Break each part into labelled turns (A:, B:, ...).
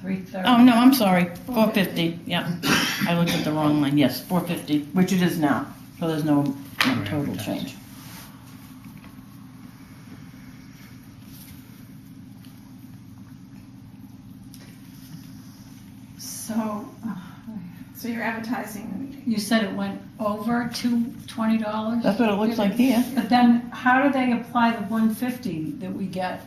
A: three thirty.
B: Oh, no, I'm sorry, four fifty, yeah. I looked at the wrong line, yes, four fifty, which it is now, so there's no no total change.
C: So, uh, so you're advertising,
A: You said it went over to twenty dollars?
B: That's what it looks like here.
A: But then, how do they apply the one fifty that we get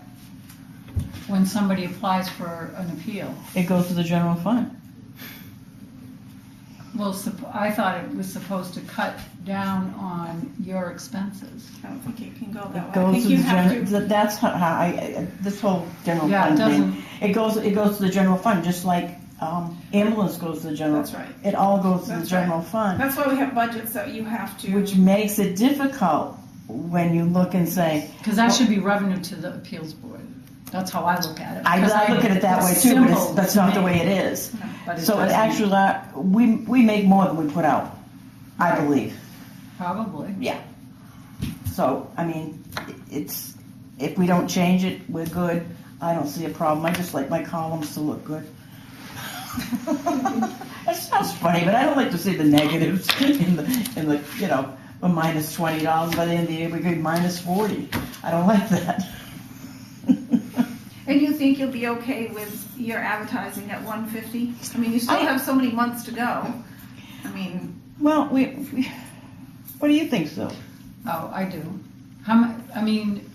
A: when somebody applies for an appeal?
B: It goes to the general fund.
A: Well, supp- I thought it was supposed to cut down on your expenses.
C: I don't think it can go
B: It
C: that way. I
B: goes
C: think
B: to the
C: you have
B: general,
C: to,
B: that's how how I, I- this whole general
A: Yeah, it
B: fund
A: doesn't,
B: thing. It goes, it goes to the general fund, just like, um, ambulance goes to the general.
C: that's right.
B: It all goes to the
C: That's right.
B: general fund.
C: That's why we have budgets that you have
B: Which
C: to,
B: makes it difficult when you look and say,
A: because that should be revenue to the appeals board. That's how I look at it.
B: I,
A: 'Cause
B: I look at it that way too, but it's,
A: simple
B: that's
A: to
B: not the
A: me,
B: way it is.
A: but it
B: So it
A: doesn't.
B: actually, uh, we, we make more than we put out, I believe.
A: Probably.
B: So, I mean, i- it's, if we don't change it, we're good. I don't see a problem. I just like my columns to look good. That sounds funny, but I don't like to see the negatives in the, in the, you know, a minus twenty dollars by the end of the year, we could minus forty. I don't like that.
C: and you think you'll be okay with your advertising at one fifty? I mean, you still
B: I-
C: have so many months to go. I mean,
B: Well, we, we, what do you think, Sue?
A: Oh, I do. How mu, I mean,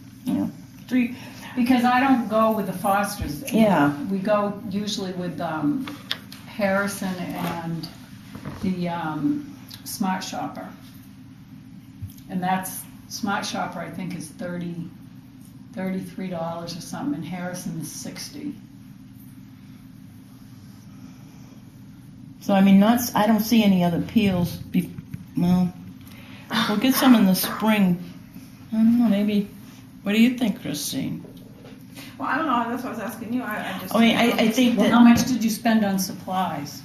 B: Three,
A: because I don't go with the Fosters.
B: Yeah.
A: We go usually with, um, Harrison and the, um, Smart Shopper. And that's, Smart Shopper, I think, is thirty, thirty-three dollars or something, and Harrison is sixty.
B: so I mean, not, I don't see any other peels be, well, we'll get some in the spring. I don't know, maybe, what do you think, Christine?
C: well, I don't know, that's what I was asking you, I, I just.
B: I mean, I, I think
A: Well, how
B: that,
A: much did you spend on supplies?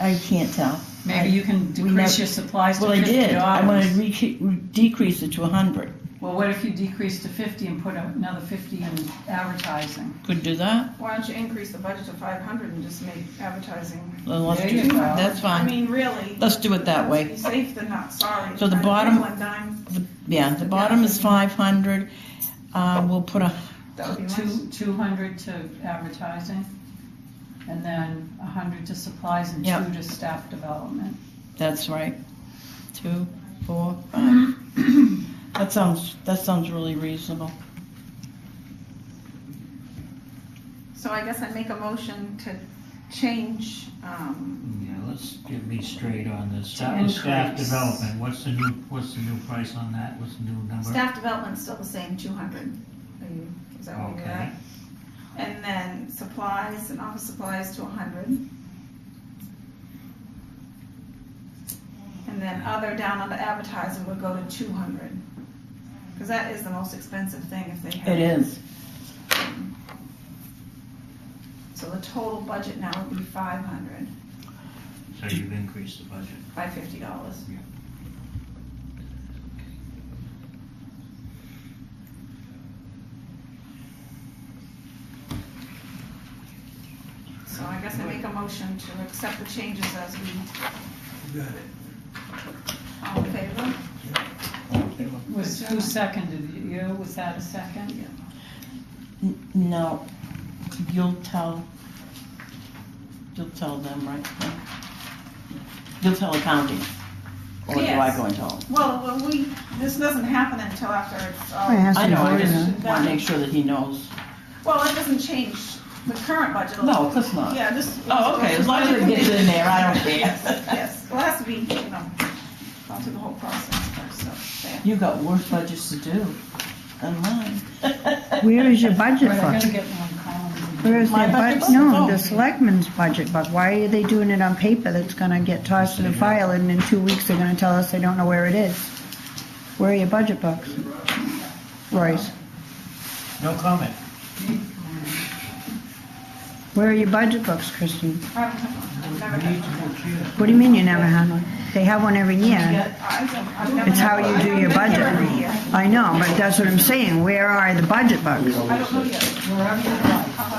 B: I can't tell.
A: Maybe you can decrease
B: never-
A: your supplies to
B: Well, I
A: fifty
B: did, I wanted to
A: dollars.
B: re- decrease it to a hundred.
A: Well, what if you decrease to fifty and put another fifty in advertising?
B: Could do that,
C: Why don't you increase the budget to five hundred and just make advertising?
B: Then let's
A: There
B: do,
A: you go.
B: that's
C: I
B: fine.
C: mean, really.
B: Let's do it that way.
C: Be safe than not sorry.
B: So the
C: I think
B: bottom-
C: one dime,
B: Yeah, the bottom is five hundred, uh, we'll put a,
C: That would be nice.
A: Two, two hundred to advertising, and then a hundred to supplies and
B: Yep.
A: two to staff development.
B: That's right. Two, four, five. That sounds, that sounds really reasonable.
C: So I guess I make a motion to change, um,
D: Yeah, let's get me straight on this.
A: To
D: That was staff
A: increase.
D: development. What's the new, what's the new price on that? What's the new number?
C: staff development's still the same, two hundred. Is that what you
D: Okay.
C: got? And then supplies and office supplies to a hundred. And then other down on the advertising would go to two hundred. Cause that is the most expensive thing if they have.
B: It is.
C: So the total budget now would be five hundred
D: So you've increased the budget.
C: by fifty dollars. So I guess I make a motion to accept the changes as we. All in favor?
A: Was, who seconded it? you? Was that a second?
B: N- No, you'll tell, you'll tell them, right? You'll tell accounting. Or do I
C: Yes.
B: go and tell them?
C: Well, well, we, this doesn't happen until after uh, it's all.
B: I know, I
C: voted.
B: just want to make sure that he knows.
C: Well, it doesn't change the current budget.
B: No, of course not.
C: Yeah, just.
B: Oh, okay, as long as it gets in there, I don't
C: Yes,
B: care.
C: yes, well, it has to be, you know, gone through the whole process first, so, there.
B: You got worse budgets to do than mine.
E: Where is your budget
A: Right, I
E: book?
A: gotta get one column.
E: Where is
B: My
E: their
B: budget
E: bud,
B: book's
E: no,
B: home.
E: the selectmen's budget book, why are they doing it on paper that's gonna get tossed to the file and in two weeks they're gonna tell us they don't know where it is? Where are your budget books? Royce,
D: No comment.
E: where are your budget books, Christine?
C: I don't know. I've never
D: We need to
C: had-
D: go through that.
E: What do you mean you never had one? They have one every year.
C: I don't- I've never
E: It's
C: had
E: how
C: one.
E: you do
C: I've
E: your
C: been here
E: budget.
C: every year.
E: I know, but that's what I'm saying, where are the budget books?
C: I don't know yet.
A: Wherever you like.
C: How about